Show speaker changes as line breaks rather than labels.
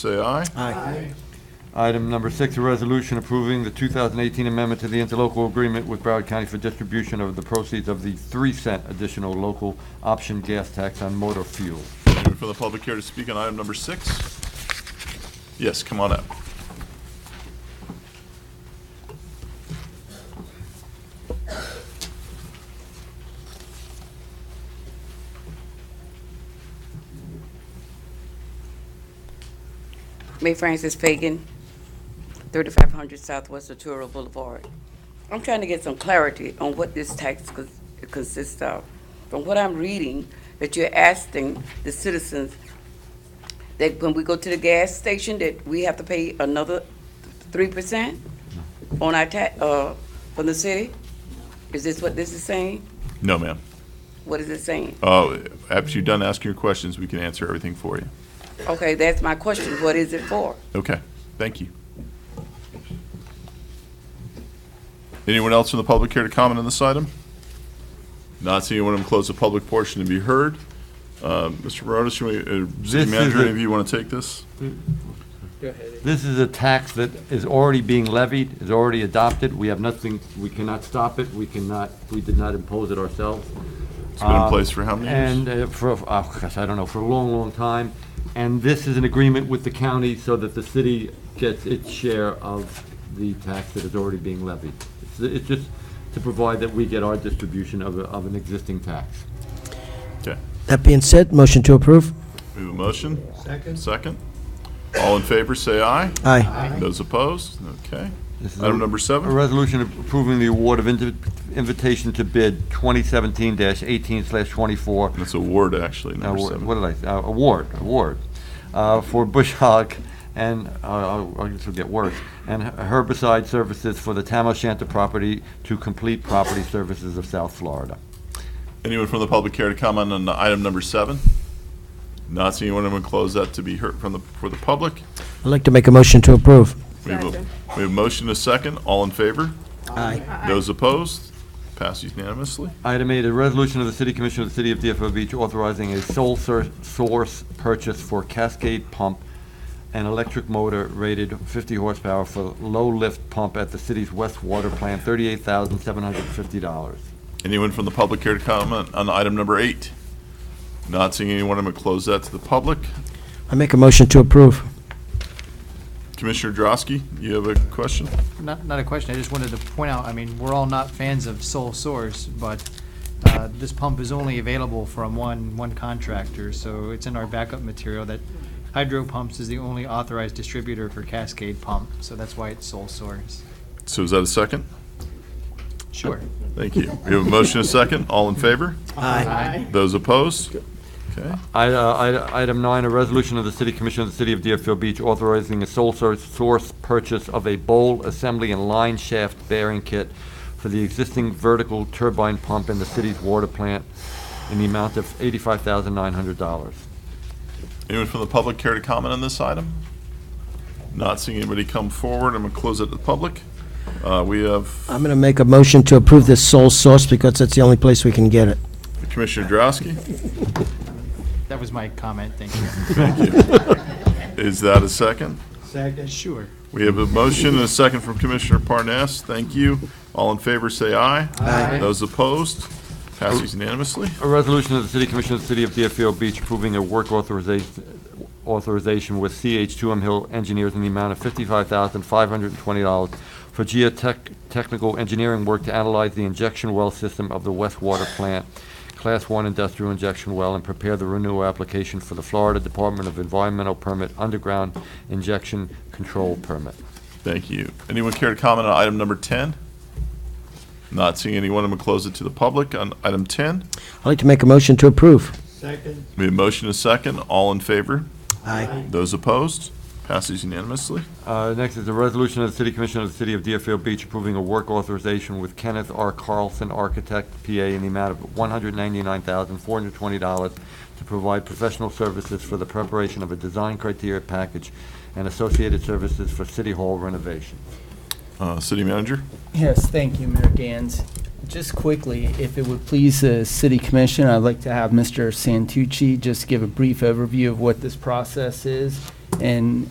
say aye.
Aye.
Item number six, a resolution approving the 2018 amendment to the interlocal agreement with Broward County for distribution of the proceeds of the 3 cent additional local option gas tax on motor fuel.
Anyone from the public here to speak on item number six? Yes, come on up.
May Francis Fagan, 3500 Southwest Arturo Boulevard. I'm trying to get some clarity on what this tax cons- consists of. From what I'm reading, that you're asking the citizens that when we go to the gas station, that we have to pay another 3% on our tax, uh, from the city? Is this what this is saying?
No, ma'am.
What is it saying?
Uh, After you're done asking your questions, we can answer everything for you.
Okay, that's my question. What is it for?
Okay, thank you. Anyone else from the public here to comment on this item? Not seeing anyone, I'm gonna close the public portion to be heard. Uh, Mr. Barotas, you want,
This
City
is
Manager,
a-
any of you want to take this?
This is a tax that is already being levied, is already adopted. We have nothing, we cannot stop it, we cannot, we did not impose it ourselves.
It's been in place for how many years?
Um, And uh, for, oh gosh, I don't know, for a long, long time. And this is an agreement with the county so that the city gets its share of the tax that is already being levied. It's- It's just to provide that we get our distribution of, a- of an existing tax.
Okay,
That being said, motion to approve?
we have a motion? Second. Second. All in favor, say aye.
Aye.
Those opposed? Okay.
This is a-
Item number
A
seven?
resolution approving the award of invi- invitation to bid 2017-18/24
That's a ward, actually,
Uh,
number
wa-
seven.
What did I, uh, award, award, uh, for bush hog and, uh, I'll- I'll- this will get worse, and herbicide services for the Tam O'Shanter property to complete property services of South Florida.
Anyone from the public care to comment on item number seven? Not seeing anyone, I'm going to close that to be heard from the, for the public.
I'd like to make a motion to approve.
We have a, we have a motion, and a second, all in favor?
Aye.
Those opposed? Passes unanimously.
Item eight, a resolution of the City Commission of the City of DFO Beach authorizing a sole sur- source purchase for Cascade Pump, an electric motor rated 50 horsepower for low-lift pump at the city's West Water Plant, $38,750.
Anyone from the public care to comment on item number eight? Not seeing anyone, I'm going to close that to the public.
I make a motion to approve.
Commissioner Drosky, you have a question?
Not, not a question, I just wanted to point out, I mean, we're all not fans of sole source, but uh, this pump is only available from one, one contractor, so it's in our backup material that Hydro Pumps is the only authorized distributor for Cascade Pump, so that's why it's sole source.
So is that a second?
Sure.
Thank you. We have a motion, and a second, all in favor?
Aye.
Those opposed? Okay.
I- uh, I- Item nine, a resolution of the City Commission of the City of Deerfield Beach authorizing a sole source- source purchase of a bowl assembly and line shaft bearing kit for the existing vertical turbine pump in the city's water plant in the amount of $85,900.
Anyone from the public care to comment on this item? Not seeing anybody come forward, I'm going to close it to the public. Uh, We have
I'm going to make a motion to approve this sole source because that's the only place we can get it.
Commissioner Drosky.
That was my comment, thank you.
Is that a second?
Sure.
We have a motion and a second from Commissioner Parnas. Thank you. All in favor, say aye. Aye. Those opposed? Passes unanimously.
A resolution of the City Commission of the City of Deerfield Beach approving a work authorization authorization with CH2M Hill Engineers in the amount of $55,520 for geotechnical engineering work to analyze the injection well system of the West Water Plant, Class 1 industrial injection well, and prepare the renewal application for the Florida Department of Environmental Permit Underground Injection Control Permit.
Thank you. Anyone care to comment on item number 10? Not seeing anyone, I'm going to close it to the public on item 10.
I'd like to make a motion to approve.
We have a motion and a second. All in favor?
Aye.
Those opposed? Passes unanimously.
Uh, Next is a resolution of the City Commission of the City of Deerfield Beach approving a work authorization with Kenneth R. Carlson Architect, PA, in the amount of $199,420 to provide professional services for the preparation of a design criteria package and associated services for City Hall renovation.
Uh, City Manager?
Yes, thank you, Mayor Gans. Just quickly, if it would please the city commission, I'd like to have Mr. Santucci just give a brief overview of what this process is and